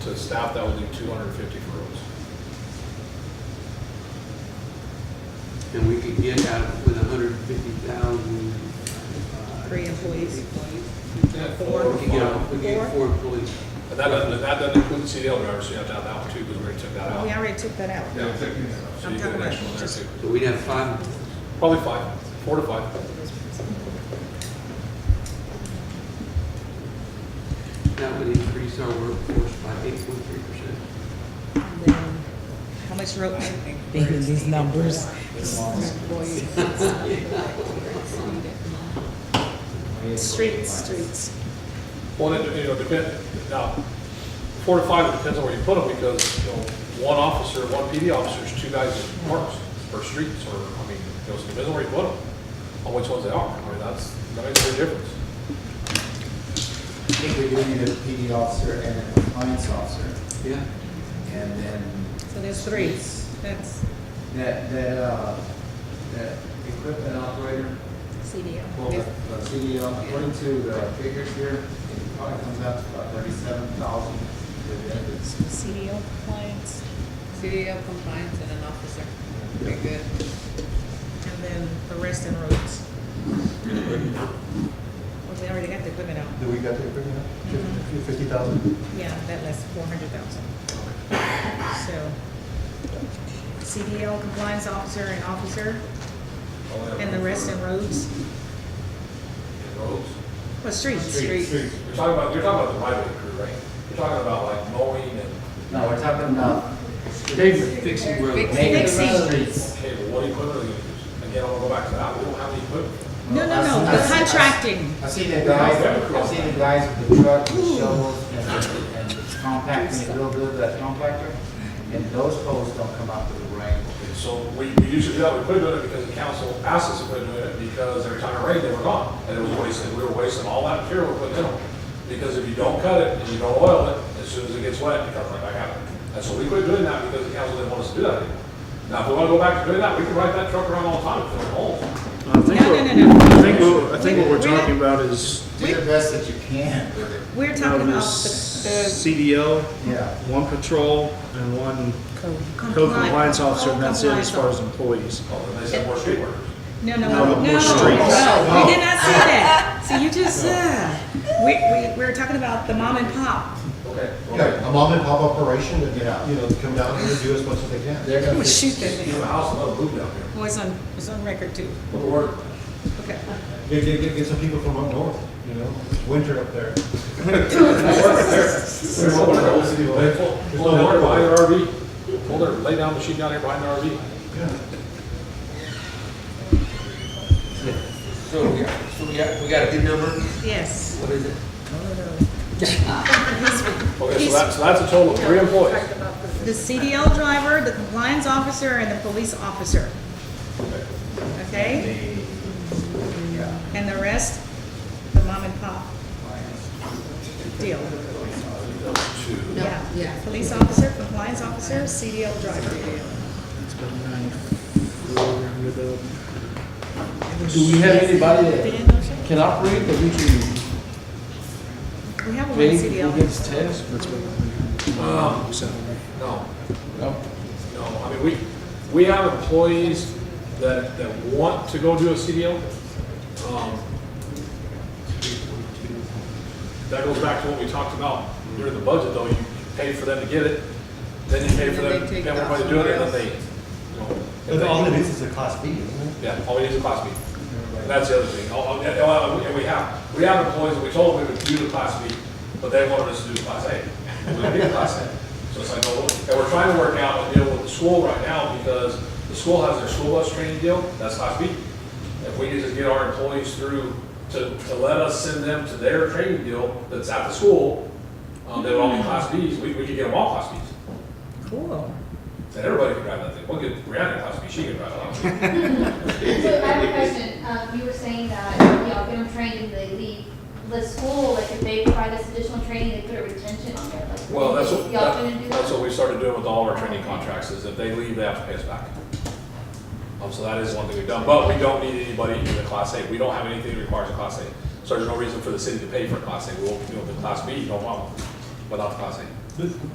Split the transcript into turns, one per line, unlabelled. to stop, that would leave two hundred and fifty for roads.
And we could get out with a hundred and fifty thousand.
Three employees.
We could get,
Four.
out- we could get four employees.
And that doesn't, that doesn't include the CDL drivers, so you have to have that one too, because we already took that
We
out.
already took that out.
Oh. Yeah, we took- So
I'm
you get
talking
an
about
extra one there
just-
too.
So we'd have five,
Probably five, four to five.
that would increase our workforce by eight point three percent.
And then How much road?
Thinking these numbers.
Streets, streets.
Well, it, you know, depend, now, four to five, it depends on where you put them, because, you know, one officer, one PD officer is two guys at parks, or streets, or, I mean, you know, it depends on where you put them, on which ones they are, I mean, that's, that makes a big difference.
I think we do need a PD officer and a compliance officer,
Yeah,
and then
So there's three. That's
that, that, uh, that equipment operator, well, the
CDL.
the CDL, according to the figures here, it probably comes out to about thirty-seven thousand.
CDL compliance.
CDL compliance and an officer. Very good.
And then the rest in roads. Well, we already got the equipment out. Mm-hmm.
Do we got the equipment? Fifty thousand?
Yeah, that lasts four hundred thousand. So. CDL compliance officer and officer, and the rest in roads,
And roads.
well, streets.
Streets.
You're talking about, you're talking about the right of crew, right? You're talking about like mowing and,
No, we're talking about.
pavement fixing roads.
okay,
Fixing.
well, what equipment are you using? Again, I wanna go back to that, we don't have any equipment.
No, no, no, the contracting.
I've seen the guys, I've seen the guys with the truck, the shovels, and the, and the compacting, a little bit of that compactor, and those poles don't come out to the rain.
And So we, we usually do that, we put it in it because the council asked us to put it in it because every time it rained, they were gone. And it was wasted, we were wasting all that material we put in them. Because if you don't cut it and you don't oil it, as soon as it gets wet, it comes right back out. And so we quit doing that because the council didn't want us to do that anymore. Now, if we want to go back to doing that, we can ride that truck around all the time and fill it holes.
I think
No,
what-
no, no, no.
I think what, I think what we're
We're-
talking about is,
Do the best that you can with it.
We're
you know,
talking about
this
the,
CDL,
Yeah.
one patrol and one
the.
code compliance officer, and that's it
Compliance
as far as employees.
Oh, and they said more street workers.
No, no,
No,
no, no, no,
more
we did not
streets.
say
Oh.
that. So you just, uh, we, we, we're talking about the mom and pop.
Okay.
Yeah, a mom and pop operation, and,
Yeah.
you know, come down here and do as much as they can.
They're
I'm
gonna
gonna
fix-
shoot that
You
thing.
have a house, a little move down here.
Well, Oh, it's on, it's on record too.
What the word?
Okay.
Get, get, get- get some people from up north, you know, it's winter up there.
They pull, pull down there behind their RV, pull their, lay down machine down there behind their RV.
So we got, so we got, we got a good number,
Yes.
what is it?
Okay, so that's, so that's a total of three employees.
The CDL driver, the compliance officer, and the police officer. Okay?
Yeah.
And the rest, the mom and pop deal. Yeah.
yeah.
Police officer, compliance officer, CDL driver.
It's about nine, four hundred of-
Do we have anybody that
We
can operate that we can
have one
pay who
CDL.
gives tests?
that's about nine
Um,
hundred salary.
No,
No.
no, I mean, we, we have employees that, that want to go do a CDL. Um, That goes back to what we talked about during the budget, though, you pay for them to get it, then you pay for
And then
them,
they
pay
take
for
it off
everybody to do it, and then
somewhere
they, you know. if
But
they-
all it is is a class B, isn't it?
Yeah, all we need is a class B. And that's the other thing. Oh, All- all- And all- and we have, we have employees, that we told them we would do the class B, but they wanted us to do the class A. We didn't do the class A. So it's like, well, and we're trying to work out a deal with the school right now because the school has their school bus training deal, that's class B. If we could just get our employees through to, to let us send them to their training deal that's at the school, um, they would all be class Bs, we, we could get them all class Bs.
Cool.
Then everybody could drive that thing. We'll get Brianna a class B, she can drive it.
So I have a question, um, you were saying that, you know, get them trained and they leave the school, like if they provide this additional training, they put a retention on there, like.
Well, that's what,
Y'all gonna do
that-
that?
that's what we started doing with all our training contracts, is if they leave, they have to pay us back. Um, so that is one thing we've done, but we don't need anybody in the class A, we don't have anything that requires a class A. So there's no reason for the city to pay for a class A, we'll, you know, the class B, no problem, but not the class A.